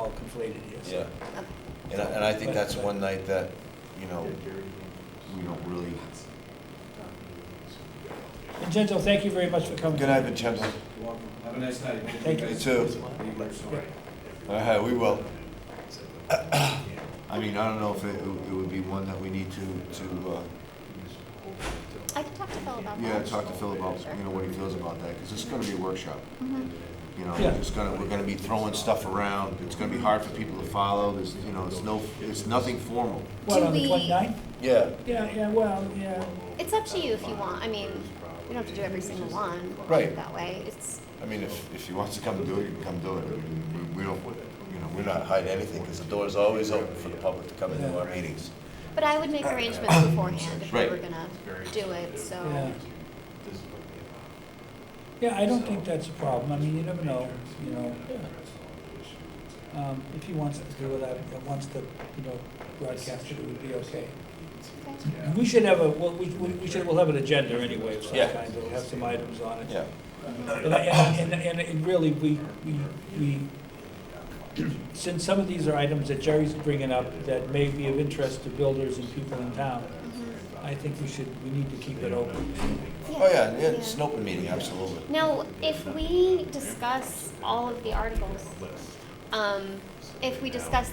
how conflated he is. Yeah. And I, and I think But- that's but- one night that, you know, we don't really. Vincenzo, thank you very much for coming. Good night, Vincenzo. Have a nice night. Thank you. You too. All right, uh, we will. I mean, I don't know if it, it would be one that we need to, to, uh, I can talk to Phil about that. yeah, talk to Phil about, you know, what he feels about that, because it's gonna be a workshop. Mhm. You know, Yeah. it's gonna, we're gonna be throwing stuff around, it's gonna be hard for people to follow, there's, you know, it's no, it's nothing formal. What, Do on the we- 29th? Yeah. Yeah, yeah, well, yeah. It's up to you if you want. I mean, you don't have to do every single one Right. that way. It's, I mean, if, if he wants to come and do it, he can come do it. I mean, We we don't, you know, we're not hiding anything, because the door's always open for the public to come into our meetings. but I would make arrangements beforehand if we Uh, Right. were gonna do it, so. Yeah. Yeah, I don't think that's a problem. I mean, you never know, you know. Um, if he wants to do it, I- and wants to, you know, broadcast it, it would be okay. Okay. We should have a, well, we, we we should, we'll have an agenda anyway of some Yeah. kind. We'll have some items on it. Yeah. And, I- and, and- and really, we, we, we, since some of these are items that Jerry's bringing up that may be of interest to builders and people in town, Mhm. I think we should, we need to keep it open. Oh, yeah, yeah, it's an open meeting, absolutely. Now, if we discuss all of the articles, um, if we discuss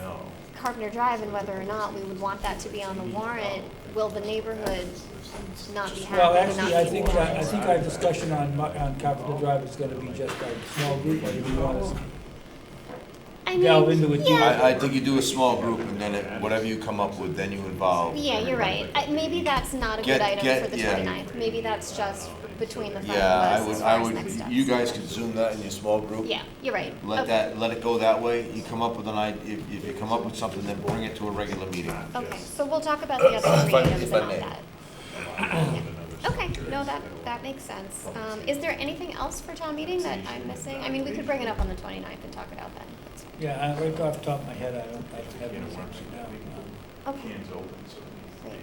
Carpenter Drive and whether or not we would want that to be on the warrant, will the neighborhood not be happy? Well, and actually, not I be think, uh, warned? I think our discussion on, Mo- on Carpenter Drive is gonna be just our small group, or do you want us? I delve mean, into it yeah, I, I think you do a small group, and then it- whatever you come up with, then you involve. Yeah, you're right. I- Maybe that's not a good Get- item get- for the yeah. 29th. Maybe that's just between the five Yeah, I of us would, as I far as next would, steps. you guys could zoom that in your small group. Yeah, you're right. Let Okay. that, let it go that way. You come up with an idea, if, if you come up with something, then bring it to a regular meeting. Okay, so we'll talk about the other three If I- items if and I all may. that. Okay, no, that, that makes sense. Um, is there anything else for town meeting that I'm missing? I mean, we could bring it up on the 29th and talk it out then. That's- Yeah, I- right off the top of my head, I don't, I don't have anything right now. Um, Okay, great.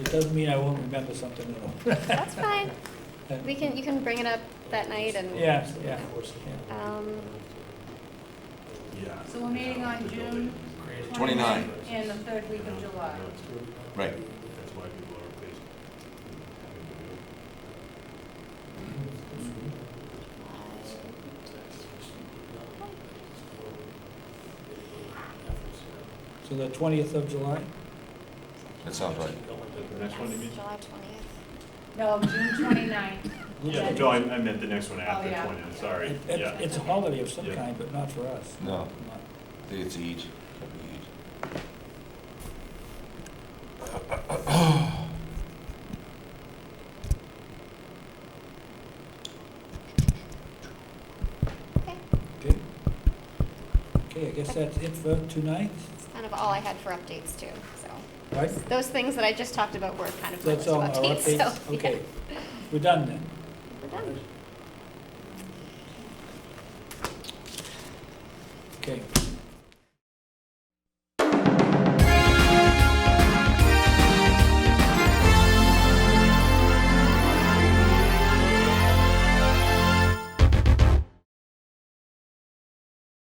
It doesn't mean I won't remember something at That's fine. all. We can, you can bring it up that night and. Yeah, yeah, yeah. Um, So we're meeting on June 29. And the third week of July. Right. So the twentieth of July? That sounds right. The next one, you mean? July 20th. No, June twenty-ninth. Yeah, no, I, I meant the next one after Oh, yeah. twenty, I'm sorry, It- yeah. it- It's a holiday of some Yeah. kind, but not for us. No. Not- I think it's Eid. Could be Eid. Okay, Okay. Okay, I guess that's it for tonight, that's kind of all I had for updates too, so. right? Those things that I just talked about were kind of my That's list all of our updates, updates, so. yeah, okay. We're done then. We're done. Okay,